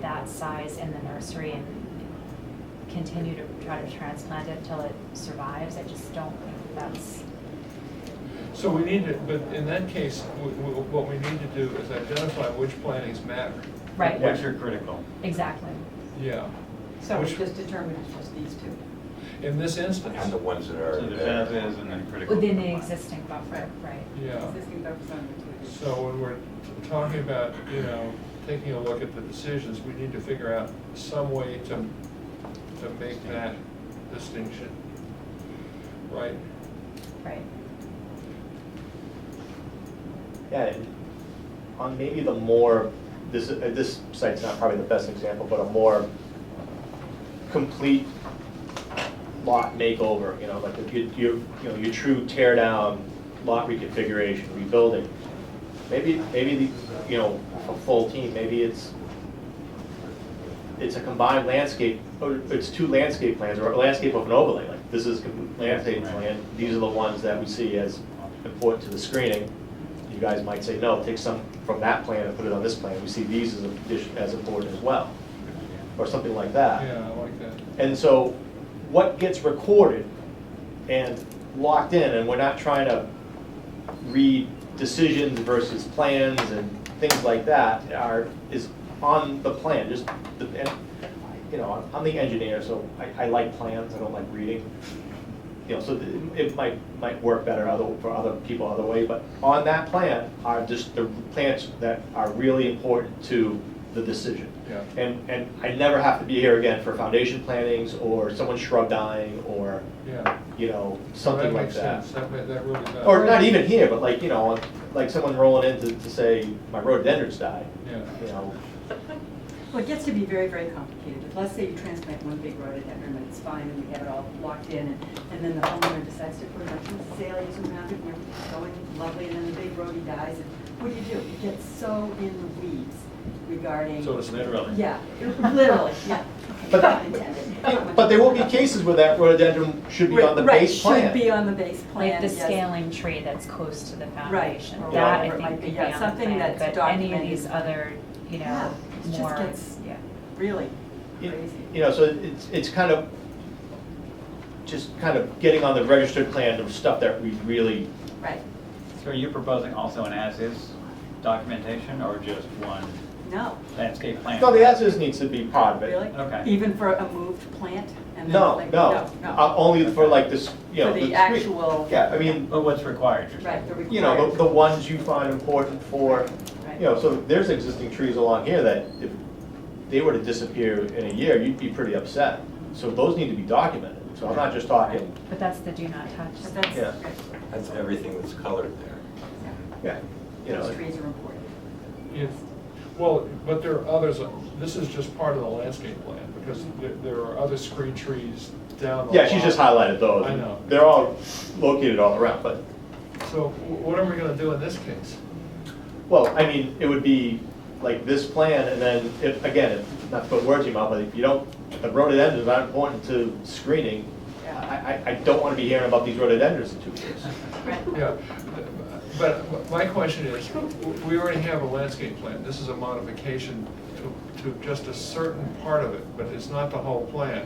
that size in the nursery and continue to try to transplant it till it survives, I just don't think that's, So we need to, but in that case, we- we- what we need to do is identify which plantings matter. right, Which are critical. exactly. Yeah, So we Which- just determined it's just these two. in this And instance, the ones that are. So the FAB is and then critical. Within the compliance. existing buffer, right. yeah. Existing focus on the two. So when we're t- talking about, you know, taking a look at the decisions, we need to figure out some way to, to make that distinction. Right? Right. Yeah, and on maybe the more, this, uh, this site's not probably the best example, but a more complete lot makeover, you know, like the- your, your, you know, your true tear down lot reconfiguration, rebuilding. Maybe, maybe the, you know, a full team, maybe it's, it's a combined landscape, or it's two landscape plans, or a landscape of an overlay, like, this is com- landscape plan, these are the ones that we see as important to the screening. You guys might say, no, take some from that plan and put it on this plan, we see these as, addition- as important as well, or something like that. Yeah, I like that. And so what gets recorded and locked in, and we're not trying to read decisions versus plans and things like that are, is on the plan, just, the and, you know, I'm- I'm the engineer, so I, I like plans, I don't like reading. You know, so th- it might, might work better other, for other people other way, but on that plan are just the plans that are really important to the decision. Yeah. And, and I never have to be here again for foundation plantings or someone shrub dying or, Yeah. you know, something like that. makes sense. That, ma- that really does. Or not even here, but like, you know, like someone rolling in to, to say, my rhododendrons died, Yeah. you know. Well, it gets to be very, very complicated. If, Let's say you transplant one big rhododendron and it's fine and we have it all locked in and, and then the homeowner decides to put a bunch of azaleas around it and everything's going lovely and then the big rhodey dies and what do you do? It gets so in the weeds regarding. So it's literally. Yeah, literally, yeah. But- Not intended. But there will be cases where that rhododendron should be on the Right, base plan. Should be on the base plan, Like the yes. scaling tree that's close to the Right, foundation. or That whatever I it might think be, could be yeah, on the something plan, that's but any of documented. these other, you Yeah, know, it just more, gets- yeah. Really You crazy. you know, so it's, it's kind of, just kind of getting on the registered plan of stuff that we really, Right, So are you proposing also an as-is documentation or just one no, landscape plan? no, the as-is needs to be part of it. really? Okay. Even for a moved plant? and then No, like- no, Uh, only for like this, you know. For the screen. actual- Yeah, I mean, But what's required? you're saying? Right, the required. oh, you know, the, the ones you find important for, Right. you know, so there's existing trees along here that if they were to disappear in a year, you'd be pretty upset. So those need to be documented, so I'm not just talking, But that's the do not touch. But that's, Yeah. right, That's everything that's colored there. yeah. yeah, you know. Those trees are important. If- Well, but there are others, uh, this is just part of the landscape plan, because there, there are other screen trees down the. Yeah, she just line. highlighted those. I know. They're all located all around, but, So wh- what are we gonna do in this case? well, I mean, it would be like this plan, and then, if, again, if- not to put words in your mouth, but if you don't, if the rhododendrons aren't important to screening, I, Yeah. I, I don't wanna be hearing about these rhododendrons in two years. Right. Yeah, but my question is, we already have a landscape plan, this is a modification to, to just a certain part of it, but it's not the whole plan.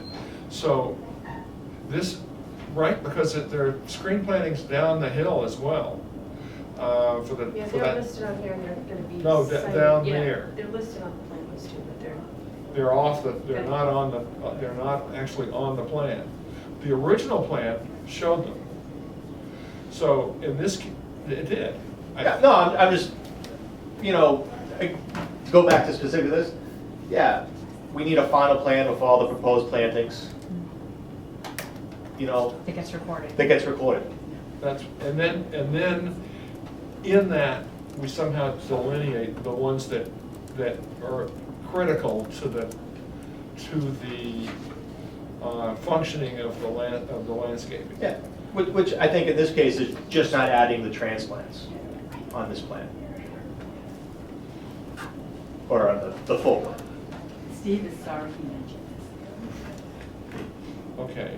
So this, right, because it- there are screen plantings down the hill as well, uh, for the, Yeah, for they're that, listed on here and they're gonna be. No, da- cited- down yeah, there. They're listed on the plan list too, but they're, they're off the, they're not on the, uh, they're not actually on the plan. The original plan showed them. So in this, ca- it did. I- Yeah, no, I'm, I'm just, you know, I- to go back to specific this, yeah, we need a final plan with all the proposed plantings, you know, That Hmm. gets recorded. that gets recorded. That's, and then, and then in that, we somehow delineate the ones that, that are critical to the, to the uh, functioning of the land, of the landscaping. Yeah, which, which I think in this case is just not adding the transplants on this plan. Or on the, the full one. Steve is sorry he mentioned this. Okay.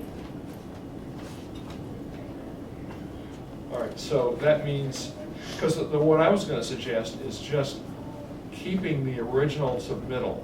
All right, so that means, because the, what I was gonna suggest is just keeping the original submittal